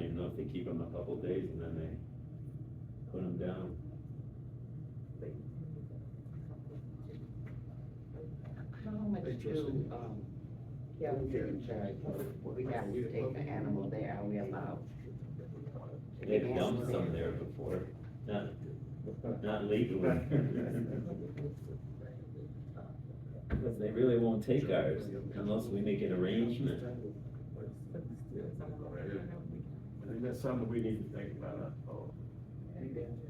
you know, if they keep them a couple days and then they put them down. How much do, um, Kelsey charge, we have to take the animal there, are we allowed? to get They've dumped animals some there? there before, not, not legally. Because they really won't take ours unless we make an arrangement. I think that's something we need to think about, uh, oh,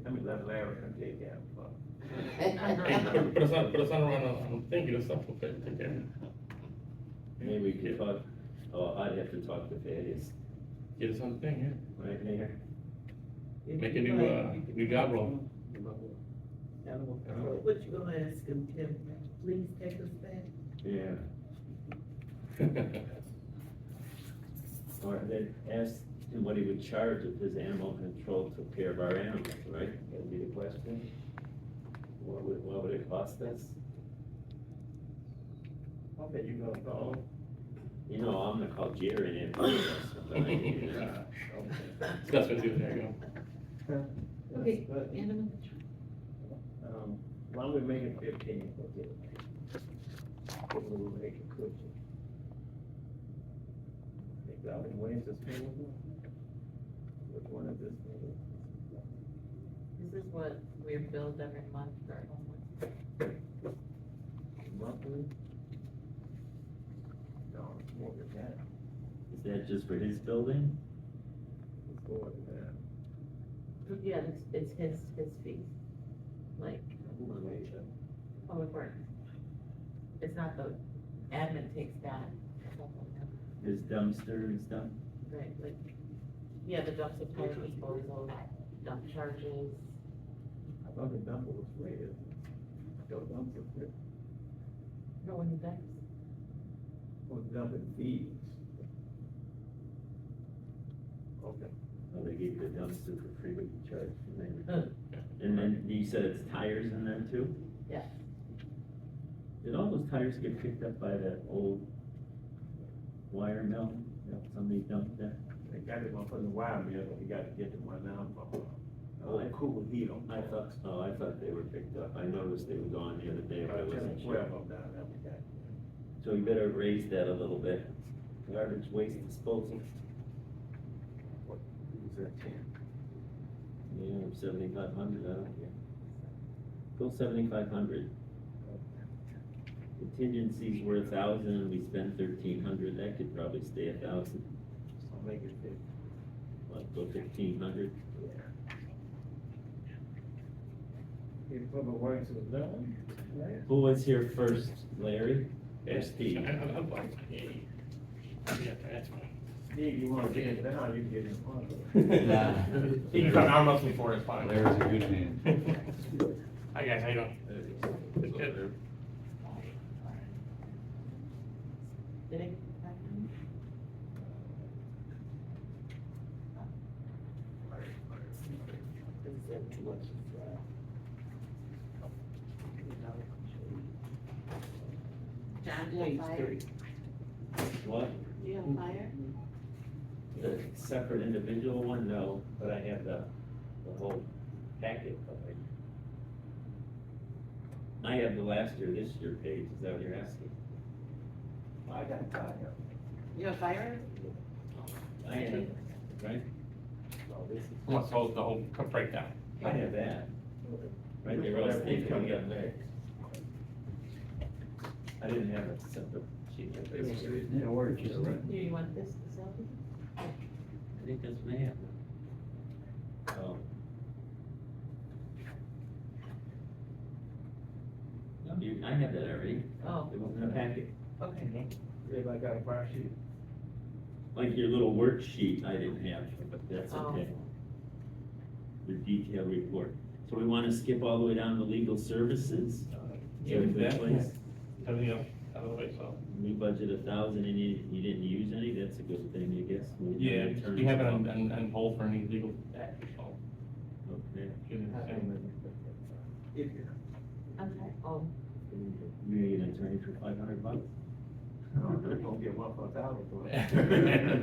let me let Larry take that. uh, But it's not, but it's not around, uh, I'm thinking it's something to take care of. Maybe we could talk, oh, I'd have to talk to Thaddeus, Get us on the thing, right, Mayor? yeah. Make a new, uh, new job role. What you gonna ask him, Tim, please take us back? Yeah. Or they asked him what he would charge if his animal control took care of our animals, right? That would be the question. What would, what would it cost us? I bet you gonna call. You know, I'm gonna call Jerry and him. uh, okay. That's what you, there you go. Okay. But, Animal um, Why don't we make it fifteen? We'll make it cushion. Think that one way is this one? Which one is this? This is what we're billed every month for homework. Monthly? No, it's more than that. Is that just for his building? It's more than that. Yeah, it's, it's his, his fees, like public work. It's not the admin takes that. His dumpster and stuff? Right, like, yeah, the dump supply disposal, dump charges. I thought the number was red. Your number was red. No one does. Or number fees. Okay. Oh, they gave you the dumpster for free, but you charged him. And then you said it's tires in there too? Yeah. Did all those tires get picked up by that old wire mill that somebody dumped there? They got it one from the wire mill, but you gotta get the one now from, uh, Oh, I- old cool heat on. I thought, oh, I thought they were picked up. I noticed they were gone the other day, but I About ten or wasn't sure. twelve of them down there we got. So we better raise that a little bit. Garbage waste disposal, Is that ten? yeah, seventy-five hundred, I don't care. Go seventy-five hundred. Contingencies were a thousand, and we spent thirteen hundred, that could probably stay a thousand, So make it fifteen. like, go fifteen hundred. If public works is done, right? Who was here first, Larry Yeah, or Steve? I, I, I'm fine. Yeah, yeah. Yeah, that's fine. Steve, you wanna get it down, you can get it in front of it. Nah. He can come down with me for it, it's fine. Larry's a good man. Hi, guys, how you doing? It's good. Did it? get back to me? Is that too much to fry? John, do you have Page three. fire? What, Do you have fire? the separate individual one? No, but I have the, the whole packet covered. I have the last year, this year page, is that what you're asking? I got tired. You have fire? I have, right? So this is. What's the whole, the whole breakdown? I have that. Right, they were all Whatever coming up comes there. I didn't have a separate sheet. It was- it didn't work, you know, right? Do you want this, this one? I think that's May. Oh. No, you, I had that already. Oh, It was in the packet. okay. Everybody got a fire sheet. Like your little worksheet, I didn't have, but that's Oh. okay. The detailed report. So we wanna skip all the way down to legal services? Yeah, Give it that- that place. Everything else, out of the way, so. We budget a thousand and you, you didn't use any, that's a good thing, I guess. We- Yeah, Attorney- you have it on, on, on hold for any legal action, so. Okay. shouldn't have any- Okay, oh, You need an attorney for five hundred bucks? No, they're gonna get one for a thousand. for it.